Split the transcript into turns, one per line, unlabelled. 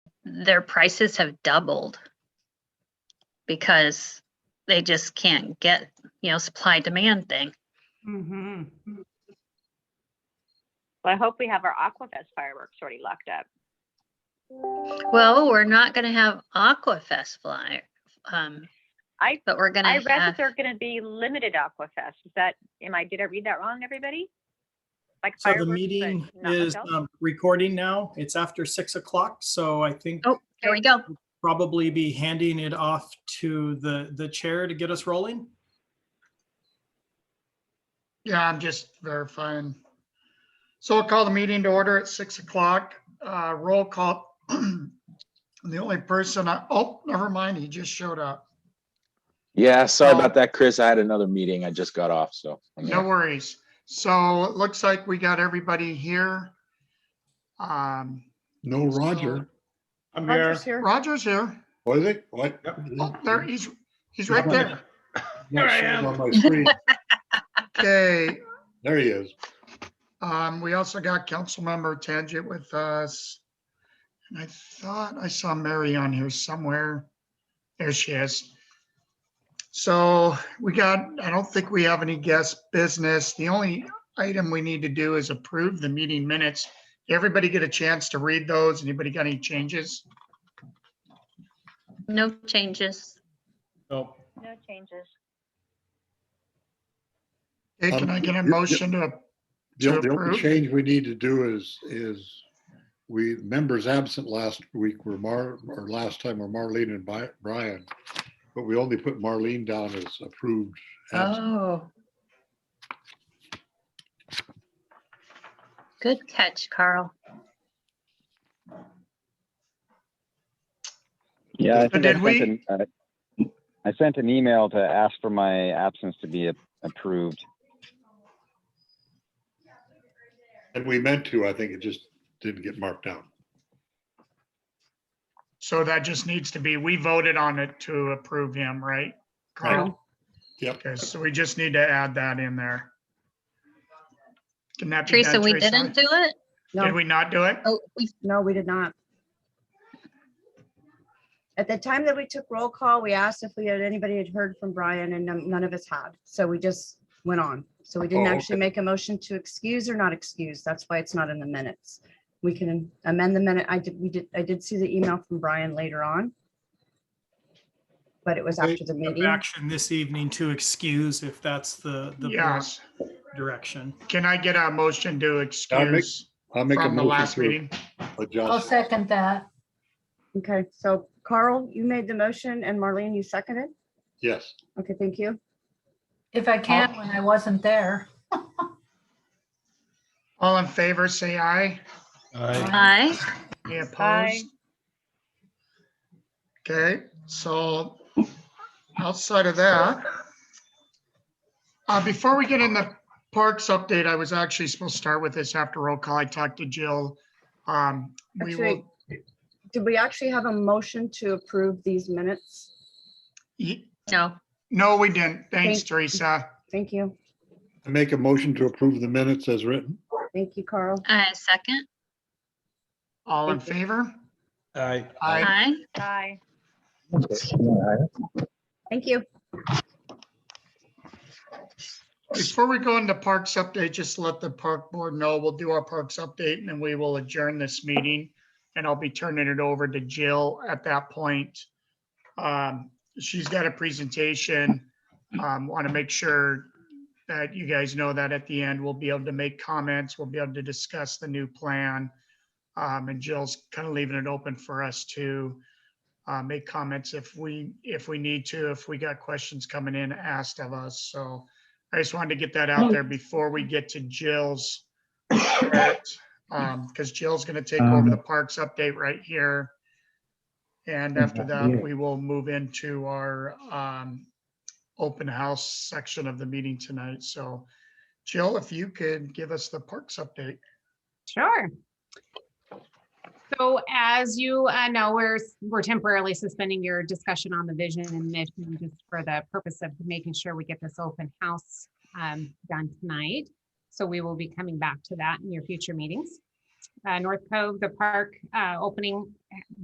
their prices have doubled because they just can't get, you know, supply demand thing.
Mm-hmm.
Well, I hope we have our Aquafest fireworks already locked up.
Well, we're not gonna have Aquafest flyer, um,
I-
but we're
I
gonna
read that
have,
they're gonna be limited Aquafest. Is that, am I, did I read that wrong, everybody? Like
So the
fireworks, but
meeting
not
is
adults?
um, recording now. It's after six o'clock, so I think
oh, here we go.
probably be handing it off to the, the chair to get us rolling.
Yeah, I'm just verifying. So I'll call the meeting to order at six o'clock. Uh, roll call. The only person, I- oh, never mind, he just showed up.
Yeah, sorry
No.
about that, Chris. I had another meeting. I just got off, so. I'm
No
here.
worries. So it looks like we got everybody here. Um,
No Roger,
I'm here.
Roger's here.
Roger's here.
was it? What?
Yep.
Oh, there, he's, he's right there.
Yeah,
Here I
showed
am.
On my screen.
Okay,
There he is.
Um, we also got Councilmember Tangent with us. And I thought I saw Mary on here somewhere. There she is. So we got, I don't think we have any guest business. The only item we need to do is approve the meeting minutes. Everybody get a chance to read those. Anybody got any changes?
No changes.
So
No changes.
Hey, Can
Um,
I get a
yep, yep.
motion to,
The
To
the only
approve?
change we need to do is, is we, members absent last week were Mar, or last time were Marlene and Bi- Brian. But we only put Marlene down as approved. absent.
Oh. Good catch, Carl.
Yeah, I
So
think I
did we-
sent an, uh, I sent an email to ask for my absence to be a- approved.
Oh.
And we meant to, I think it just didn't get marked down.
so that just needs to be, we voted on it to approve him, right? Carl?
Yep.
Okay, so we just need to add that in there. Can that be
Teresa,
done?
we didn't do it?
Did
No,
we not do it?
Oh, we,
no, we did not. At the time that we took roll call, we asked if we had, anybody had heard from Brian and none none of us had. So we just went on. So we didn't
Oh,
actually make a motion to excuse or not excuse. That's why it's not in the minutes. We can amend the minute. I did, we did, I did see the email from Brian later on. But it was
Wait,
after the meeting.
action this evening to excuse if that's the, the board's
Yes.
direction.
Can I get a motion to excuse
I'll make a
from the last
motion
meeting?
to
I'll
adjust.
second that.
Okay, so Carl, you made the motion and Marlene, you seconded?
Yes,
Okay, thank you.
If I can, when I wasn't there.
All in favor, say aye.
aye.
Any
Aye.
opposed? Okay, so outside of that, uh, before we get in the parks update, I was actually supposed to start with this after roll call. I talked to Jill. Um, we will,
Actually, did we actually have a motion to approve these minutes?
Ye-
No,
no, we didn't. Thanks,
Thank-
Teresa.
Thank you.
I make a motion to approve the minutes as written.
Thank you, Carl.
I second,
All in
Thank you.
favor?
Aye.
Aye.
aye.
Aye.
Thank you.
Before we go into parks update, just let the park board know, we'll do our parks update and then we will adjourn this meeting. And I'll be turning it over to Jill at that point. Um, she's got a presentation. Um, want to make sure that you guys know that at the end, we'll be able to make comments, we'll be able to discuss the new plan. Um, and Jill's kind of leaving it open for us to uh, make comments if we, if we need to, if we got questions coming in asked of us, so. I just wanted to get that out there before we get to Jill's. because Jill's gonna take over the parks update right here. And after that, we will move into our um, open house section of the meeting tonight. So Jill, if you could give us the parks update.
Sure. So as you uh, know, we're, we're temporarily suspending your discussion on the vision and mission just for the purpose of making sure we get this open house um, done tonight. So we will be coming back to that in your future meetings. Uh, North Cove, the park uh, opening